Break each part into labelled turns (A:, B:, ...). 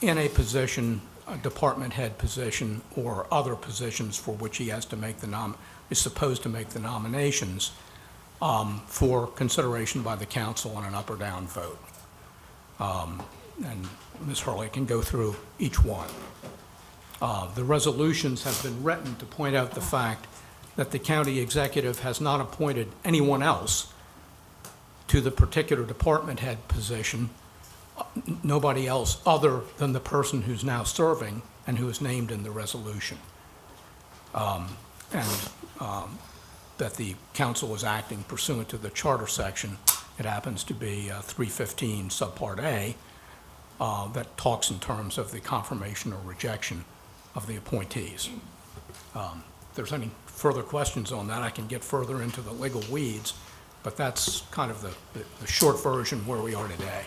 A: in a position, a department head position, or other positions for which he has to make the nom, is supposed to make the nominations um, for consideration by the council on an up or down vote. Um, And Ms. Hurley can go through each one. Uh, The resolutions have been written to point out the fact that the county executive has not appointed anyone else to the particular department head position nobody else other than the person who's now serving and who is named in the resolution. Um, And um, that the council is acting pursuant to the charter section. It happens to be uh, 315 subpart A uh, that talks in terms of the confirmation or rejection of the appointees. Um, If there's any further questions on that, I can get further into the legal weeds, but that's kind of the the- the short version where we are today.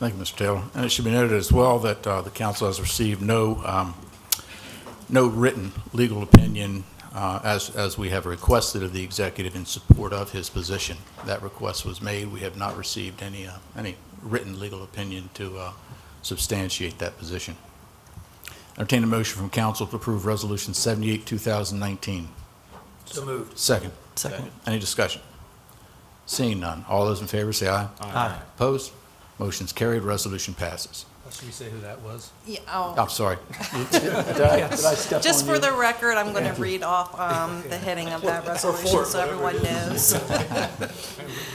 B: Thank you, Mr. Taylor. And it should be noted as well that uh, the council has received no, um, no written legal opinion uh, as, as we have requested of the executive in support of his position. That request was made. We have not received any, uh, any written legal opinion to uh, substantiate that position. Entertain a motion from council to approve Resolution 78, 2019.
C: So moved.
B: Second.
C: Second.
B: Any discussion? Seeing none, all those in favor say aye.
C: Aye.
B: Opposed? Motion's carried, resolution passes.
C: Should we say who that was?
D: Yeah, oh.
B: I'm sorry.
D: Just for the record, I'm going to read off um, the heading of that resolution so everyone knows.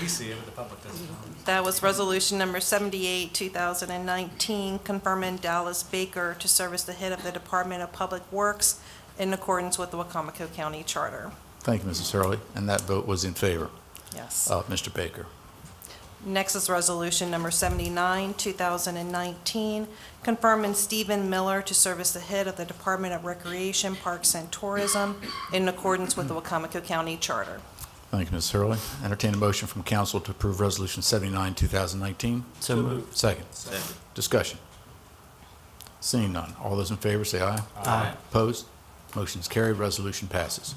C: We see it, but the public doesn't.
D: That was Resolution Number 78, 2019, confirming Dallas Baker to serve as the head of the Department of Public Works in accordance with the Wacomico County Charter.
B: Thank you, Mrs. Hurley, and that vote was in favor
D: Yes.
B: of Mr. Baker.
D: Next is Resolution Number 79, 2019, confirming Stephen Miller to serve as the head of the Department of Recreation, Parks, and Tourism in accordance with the Wacomico County Charter.
B: Thank you, Mrs. Hurley. Entertain a motion from council to approve Resolution 79, 2019.
C: So moved.
B: Second.
C: Second.
B: Discussion. Seeing none, all those in favor say aye.
C: Aye.
B: Opposed? Motion's carried, resolution passes.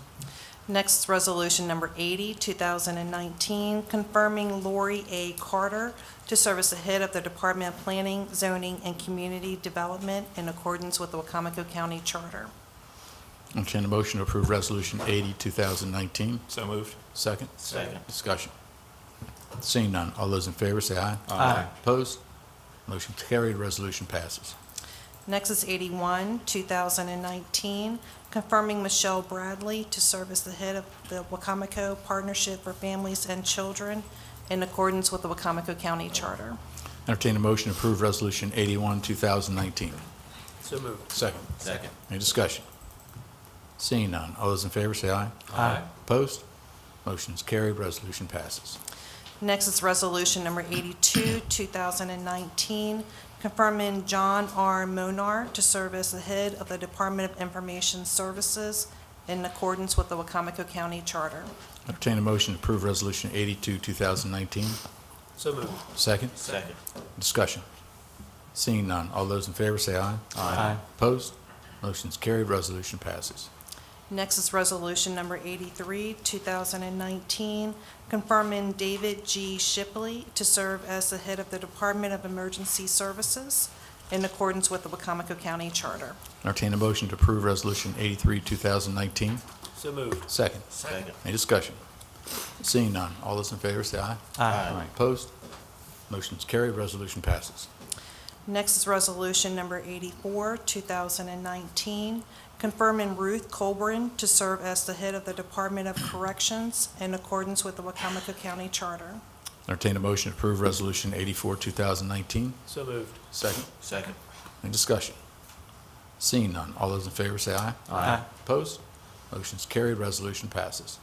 D: Next is Resolution Number 80, 2019, confirming Lori A. Carter to serve as the head of the Department of Planning, Zoning, and Community Development in accordance with the Wacomico County Charter.
B: Entertain a motion to approve Resolution 80, 2019.
C: So moved.
B: Second.
C: Second.
B: Discussion. Seeing none, all those in favor say aye.
C: Aye.
B: Opposed? Motion carried, resolution passes.
D: Next is 81, 2019, confirming Michelle Bradley to serve as the head of the Wacomico Partnership for Families and Children in accordance with the Wacomico County Charter.
B: Entertain a motion to approve Resolution 81, 2019.
C: So moved.
B: Second.
C: Second.
B: Any discussion? Seeing none, all those in favor say aye.
C: Aye.
B: Opposed? Motion is carried, resolution passes.
D: Next is Resolution Number 82, 2019, confirming John R. Monar to serve as the head of the Department of Information Services in accordance with the Wacomico County Charter.
B: Entertain a motion to approve Resolution 82, 2019.
C: So moved.
B: Second.
C: Second.
B: Discussion. Seeing none, all those in favor say aye.
C: Aye.
B: Opposed? Motion is carried, resolution passes.
D: Next is Resolution Number 83, 2019, confirming David G. Shipley to serve as the head of the Department of Emergency Services in accordance with the Wacomico County Charter.
B: Entertain a motion to approve Resolution 83, 2019.
C: So moved.
B: Second.
C: Second.
B: Any discussion? Seeing none, all those in favor say aye. Aye. Opposed? Motion is carried, resolution passes.
D: Next is Resolution Number 84, 2019, confirming Ruth Colburn to serve as the head of the Department of Corrections in accordance with the Wacomico County Charter.
B: Entertain a motion to approve Resolution 84, 2019.
C: So moved.
B: Second.
C: Second.
B: Any discussion? Seeing none, all those in favor say aye.
C: Aye.
B: Opposed? Motion is carried, resolution passes.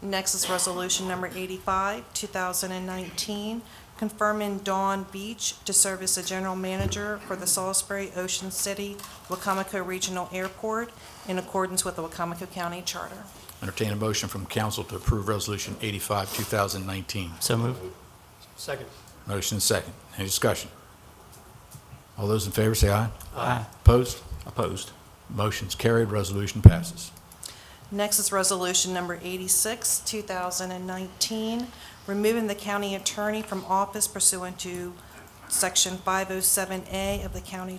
D: Next is Resolution Number 85, 2019, confirming Dawn Beach to serve as the general manager for the Salisbury Ocean City Wacomico Regional Airport in accordance with the Wacomico County Charter.
B: Entertain a motion from council to approve Resolution 85, 2019.
C: So moved. Second.
B: Motion is second. Any discussion? All those in favor say aye.
C: Aye.
B: Opposed? Opposed. Motion's carried, resolution passes.
D: Next is Resolution Number 86, 2019, removing the county attorney from office pursuant to Section 507A of the county